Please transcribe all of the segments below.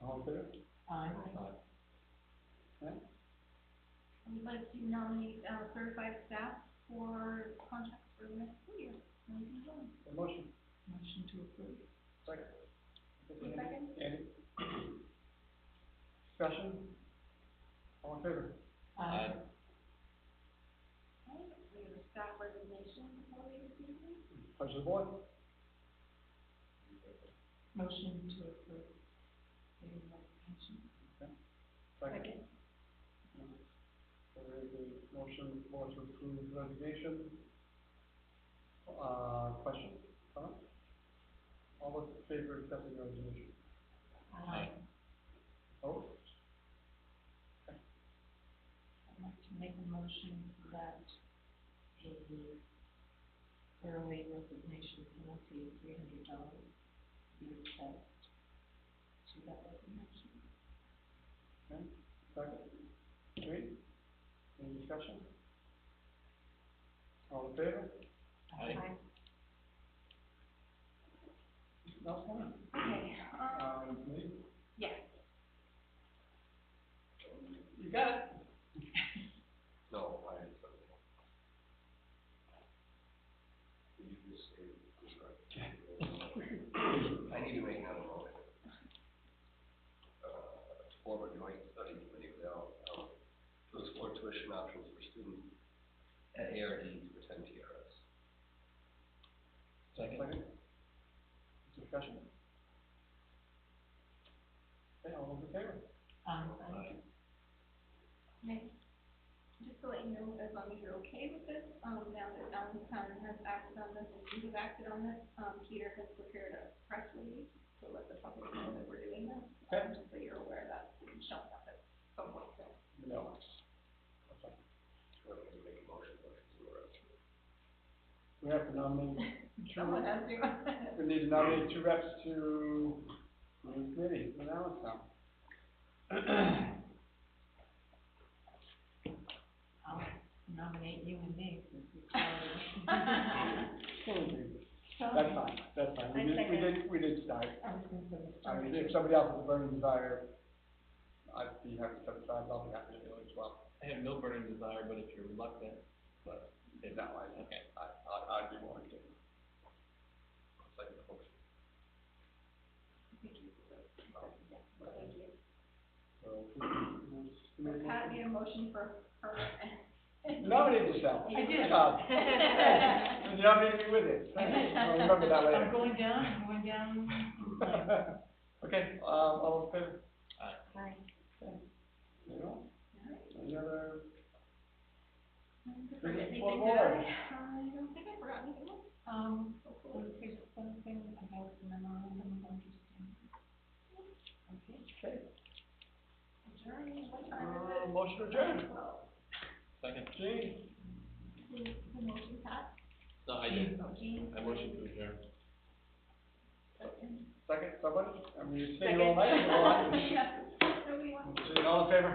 all in favor? Aye. We'd like to nominate, uh, certified staff for contracts for the next school year. Lincoln Jones. A motion, Motion to approve. second. Second. Andy? Discussion? All in favor? Aye. Okay, we have a staff resignation before we receive them. Pleasure of the board. Motion to approve. the resignation. Second. There is a motion for to approve resignation. Uh, question, comment? All those in favor of accepting the resignation? Aye. Vote? I'd like to make a motion that the early resignation penalty of three hundred dollars be assessed to that resignation. Okay, second. Three? Any discussion? All in favor? Aye. No comment? Okay, um, Um, me? yes. You got it. No, I had something. else. You just say, describe. I need to make another motion. Uh, to form a joint study committee with Al, um, to explore tuition options for students at ARD to attend TRS. Second. Discussion? Okay, all those in favor? Aye. Okay. Just to let you know, as long as you're okay with this, um, now that Allentown has acted on this, and you have acted on this, um, Peter has prepared a press release to let the public know that we're doing this. Okay. um, Just so you're aware that it's showing up at some point soon. No. Okay. Or if you make a motion, motion to arrest. We have to nominate, Someone has to. we need to nominate two reps to the committee, the Allentown. I'll nominate you and me since we That's fine, that's fine. We I did, we second. did, we did start. I was gonna say the I mean, story. if somebody else has a burning desire, I'd be happy to set aside, I'll be happy to do it as well. I have no burning desire, but if you're reluctant, but if, No, I, okay. I, I- I'd be willing to. Second motion. Thank you. So, who's- who's- Pat made a motion for her. Nominate yourself. I did. Uh, And you nominated me with it. I'll remember that I'm later. going down, I'm going down. Okay, um, all in favor? Aye. No? Alright. Any other? Forget Anything anything, for did Laura? I? Um, I don't think I forgot anything else. Um, was there something about the memorandum of understanding? Okay. Okay, Adjourn, what time is uh, it? motion adjourned. Well, Second, Gene, who, who motion Pat? no, I did, Oh, Jean. I motion to adjourn. Second. second, somebody, and we stay here all night, all night. Yeah. Nobody wants. So, All in favor?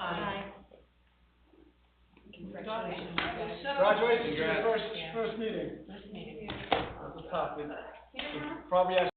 Aye. Congratulations, guys. Congratulations, your Congrats. first, Yeah. first meeting. This meeting. That was tough, it- Here, it probably